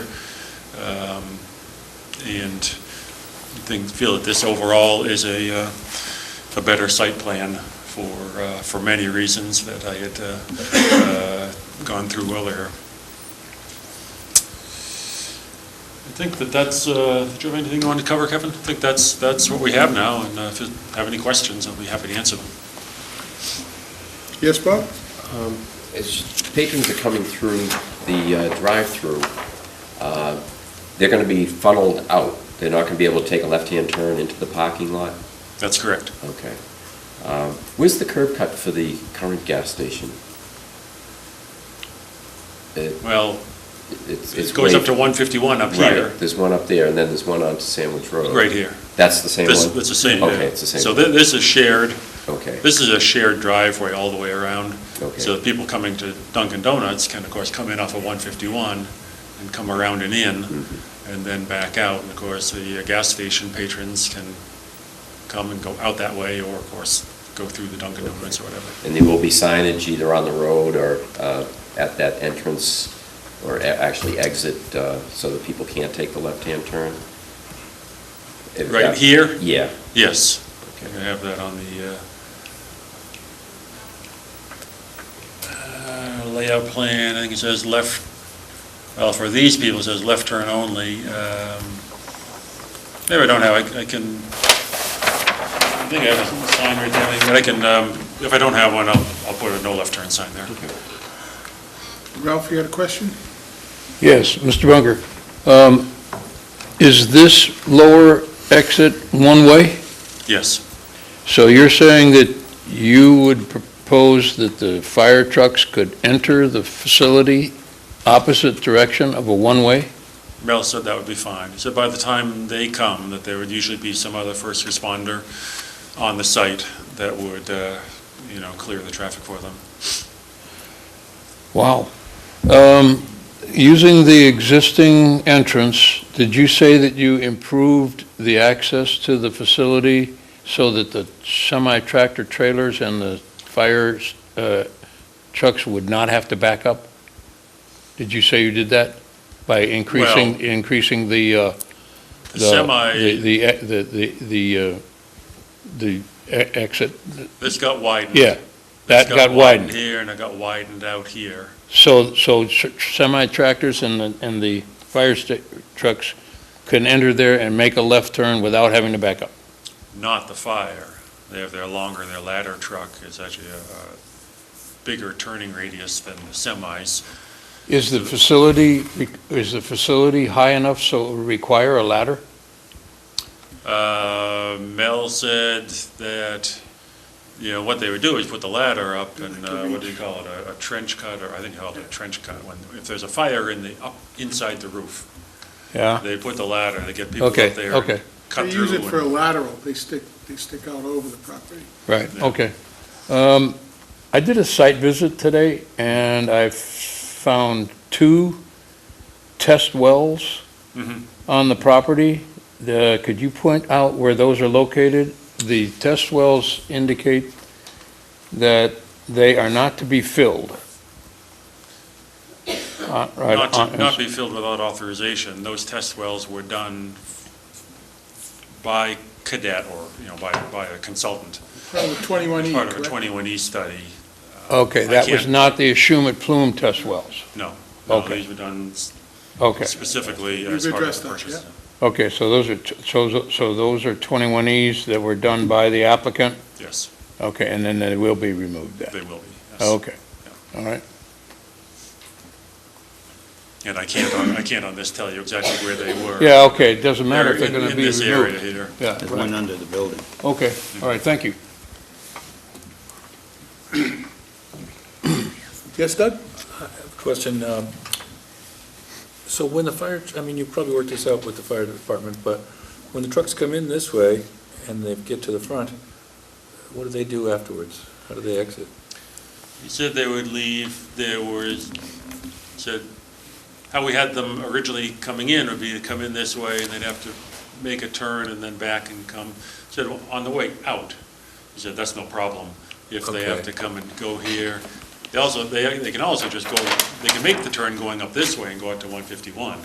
um, and think, feel that this overall is a, uh, a better site plan for, uh, for many reasons that I had uh, uh, gone through earlier. I think that that's, uh, did you have anything you wanted to cover, Kevin? I think that's, that's what we have now, and uh, if you have any questions, I'll be happy to answer them. Yes, Bob? As patrons are coming through the uh, drive-through, uh, they're going to be funneled out. They're not going to be able to take a left-hand turn into the parking lot? That's correct. Okay. Um, Where's the curb cut for the current gas station? It- Well, It's it's it goes up way- to 151 up Right, here, There's one up there, and then there's one on Sandwich Road. right here. That's the same This- one? It's the same. Okay, yeah. it's the same. So thi- this is shared, Okay, this is a shared driveway all the way around. So okay. people coming to Dunkin' Donuts can, of course, come in off of 151 and come around and in, Mhm. and then back out. And of course, the uh, gas station patrons can come and go out that way, or of course, go through the Dunkin' Donuts or whatever. And there will be signage either on the road or uh, at that entrance, or a- actually exit, uh, so that people can't take the left-hand turn? If Right that- here? Yeah. Yes, I Okay. have that on the uh, uh, layout plan, I think it says left, well, for these people, it says left turn only. Um, Maybe I don't have, I- I can, I think I have a sign right there, but I can, um, if I don't have one, I'll, I'll put a no left turn sign there. Okay. Ralph, you had a question? Yes, Mr. Bunker. Um, Is this lower exit one-way? Yes, So you're saying that you would propose that the fire trucks could enter the facility opposite direction of a one-way? Mel said that would be fine. He said by the time they come, that there would usually be some other first responder on the site that would, uh, you know, clear the traffic for them. Wow. Um, Using the existing entrance, did you say that you improved the access to the facility so that the semi-tractor trailers and the fire uh, trucks would not have to back up? Did you say you did that by increasing, increasing the, uh, The the- semi, The, the, e- the, the, the, uh, the e- exit? this got widened. Yeah, This that got widened. Here, and it got widened out here. So, so semi-tractors and the, and the fire sta- trucks can enter there and make a left turn without having to back up? not the fire. They have their longer, their ladder truck is actually a a bigger turning radius than the semis. Is the facility, is the facility high enough so it would require a ladder? Uh, Mel said that, you know, what they would do is put the ladder up and, uh, what do you call it, a- a trench cut, or I think called a trench cut, when, if there's a fire in the, up, inside the roof, Yeah. they put the ladder, they get people up Okay, there. and okay, They Cut through. use it for a and- lateral, they stick, they stick out over the property. right, Yeah. okay. Um, I did a site visit today and I found two test wells Mhm. on the property. The, could you point out where those are located? The test wells indicate that they are not to be filled. Uh, right, Not, to- on- not be filled without authorization. Those test wells were done by cadet or, you know, by, by a consultant, Probably 21E, part of a E, correct? 21E study. Okay, I that was can't- not the Ashumet Plume test wells. No. no, Okay. These were done s- Okay, specifically You've as part of addressed the that, purchase. okay, so those are, t- so, so those are 21Es that were done by the applicant? Yes, Okay, and then they will be removed then? they will be. yes. Okay, all right. And I can't, on- I can't on this tell you exactly where they were. Yeah, okay, it doesn't matter if they're in- going to be In this area removed. here. Yeah, There's right. one under the building. okay, all right, thank you. Yes, Doug? Question, um, so when the fire, I mean, you probably worked this out with the fire department, but when the trucks come in this way and they get to the front, what do they do afterwards? How do they exit? He said they would leave, there was, said, how we had them originally coming in would be to come in this way, and they'd have to make a turn and then back and come. Said, on the way out, he said, that's no problem, if they have Okay. to come and go here. They also, they, they can also just go, they can make the turn going up this way and go out to 151.